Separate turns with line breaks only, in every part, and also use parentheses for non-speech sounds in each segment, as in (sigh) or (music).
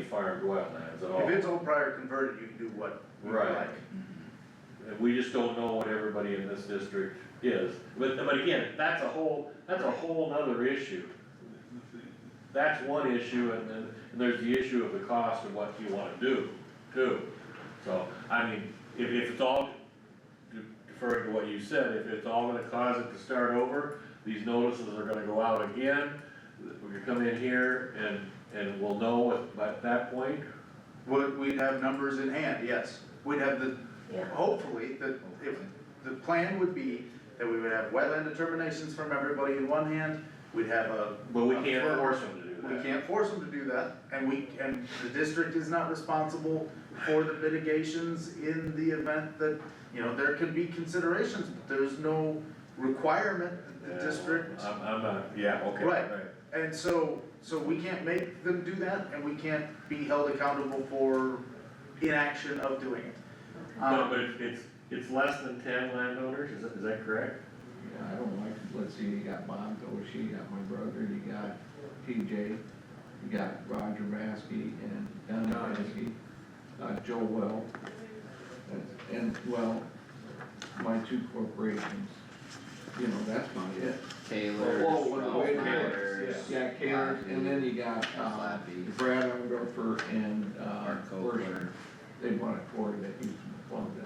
farmed wetlands at all.
If it's all prior converted, you can do what you
Right.
like.
And we just don't know what everybody in this district is, but, but again, that's a whole, that's a whole nother issue. That's one issue, and then, and there's the issue of the cost of what you wanna do, too. So, I mean, if, if it's all, deferring to what you said, if it's all gonna cause it to start over, these notices are gonna go out again, we could come in here and, and we'll know at, by that point,
Would, we'd have numbers in hand, yes. We'd have the,
Yeah.
hopefully, the, if, the plan would be that we would have wetland determinations from everybody in one hand, we'd have a.
but we
a
can't
firm-
force them to do that.
We can't force them to do that, and we, and the district is not responsible for the mitigations in the event that, you know, there can be considerations, but there's no requirement that the
Yeah,
district.
Uh, I'm, I'm not, yeah, okay.
Right. And so, so we can't make them do that, and we can't be held accountable for inaction of doing it.
No,
Um,
but it's, it's, it's less than ten landowners, is that, is that correct?
Yeah, I don't like, let's see, you got Bob Doshi, you got my brother, you got TJ, you got Roger Baskey and Don Baskey, uh, Joe Well, and- and, well, my two corporations, you know, that's not it.
Taylor,
Whoa, whoa,
Ralph
wait a minute.
Myers.
Yeah, Taylor, and then you got, uh,
Lappy.
Brad Ungerfer and, uh, Worsham.
Mark Copeland.
They bought a quarter that used to belong to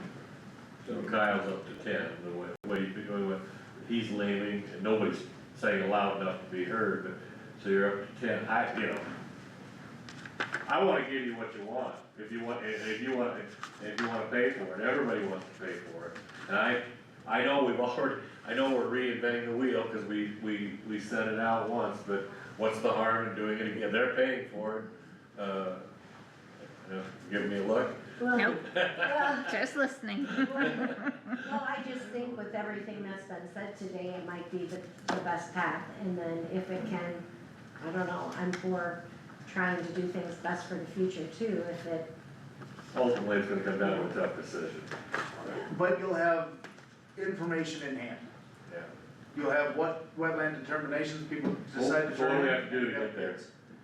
them.
So Kyle's up to ten, the way, way, you- the way, he's leaving, and nobody's saying loud enough to be heard, but, so you're up to ten, I, you know. I wanna give you what you want, if you want, if, if you want, if you wanna pay for it, everybody wants to pay for it, and I, I know we've (laughs) already, I know we're reinventing the wheel, cause we, we, we sent it out once, but what's the harm in doing it again, they're paying for it, uh, uh, give me a look,
Well,
Nope,
well,
just listening.
(laughs)
(laughs)
well, I just think with everything that's been said today, it might be the, the best path, and then if it can, I don't know, I'm for trying to do things best for the future too, if it,
ultimately, it's gonna come down to a tough decision.
But you'll have information in hand.
Yeah.
You'll have what wetland determinations people decide to.
What do we
determine.
have to do to get there?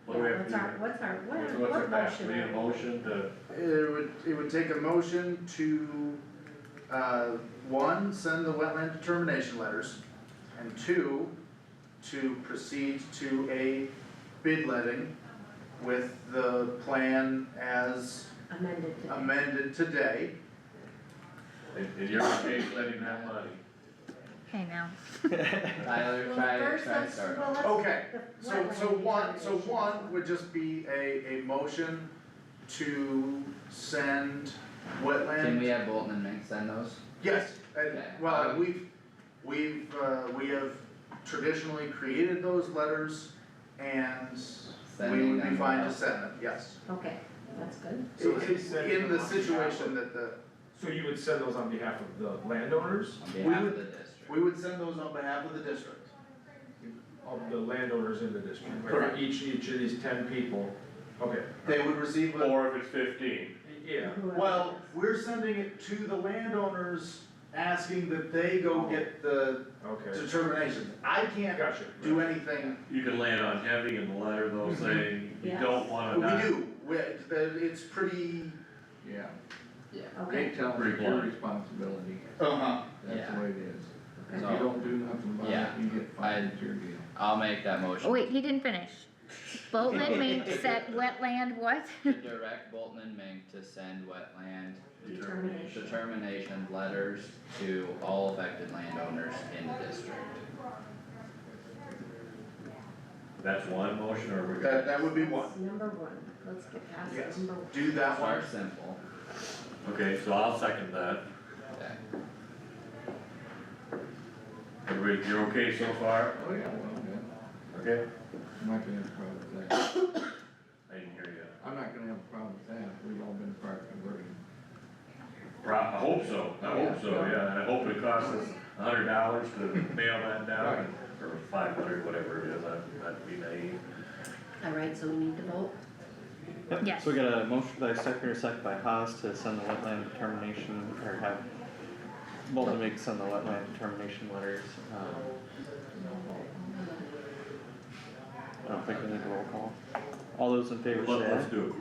What do we have to
what's our,
do?
what's our, what,
What's-
what
What's our path?
motion
We need a
are we-
motion to,
It would, it would take a motion to, uh, one, send the wetland determination letters, and two, to proceed to a bid letting with the plan as
amended to?
amended today.
and, and you're okay letting that money?
Hey now,
Tyler,
Well,
Tyler,
first,
try to
let's-
start.
well, let's-
Okay,
the
So,
wetland
so one, so
determination.
one would just be a, a motion to send wetland.
Can we have Bolton and Mink send those?
Yes, and,
Okay.
well, and we've, we've, uh, we have traditionally created those letters and we
Sending
would be
them
fine to
out.
send them, yes.
Okay, that's good,
So
In-
is he sending
In
them
the
on
situation that the,
So you would send those on behalf of the landowners,
On behalf
would-
of the district.
we would send those on behalf of the district.
of the landowners in the district? right?
Correct.
Each, each of these ten people, okay,
They would receive a,
Or if it's fifteen,
yeah,
whoever
well,
it is.
we're sending it to the landowners, asking that they go get the
okay,
determinations. I can't
gotcha.
do anything
you can land on heavy in the letter though, saying you don't wanna
We
Uh, not.
do, we, the- it's pretty.
Yeah, they
Okay,
tell me
Pretty
your
blind.
responsibility,
Uh-huh.
that's
Yeah.
the way it is. If you
So-
don't do nothing about it,
Yeah.
you get
I-
fired, it's your deal.
I'll make that
Oh,
motion.
Oh, wait, he didn't finish. Boatman made, said wetland what?
To direct Bolton and Mink to send wetland
determination.
determination letters to all affected landowners in the district.
That's one motion or we
That,
got,
that would be one,
That's Number one, let's get past
Yes.
number one.
do that one.
Start simple.
okay, so I'll second that.
Okay.
Everybody, you're okay so far?
Oh, yeah, well, then,
Okay.
I'm not gonna have a problem with that,
I didn't hear you.
I'm not gonna have a problem with that, we've all been part converting.
Pro, I hope so, I hope so,
Yeah.
yeah, and I hope it costs us a hundred dollars to nail that down, or five hundred, whatever it is, I'd, I'd be naive.
All right, so we need to vote?
Yep,
Yes.
So we got a motion by Stecker, second by Haas to send the wetland determination, or have Bolton make send the wetland determination letters, um. I don't think we need a roll call. All those in favor
Let-
say aye.
Let's do it.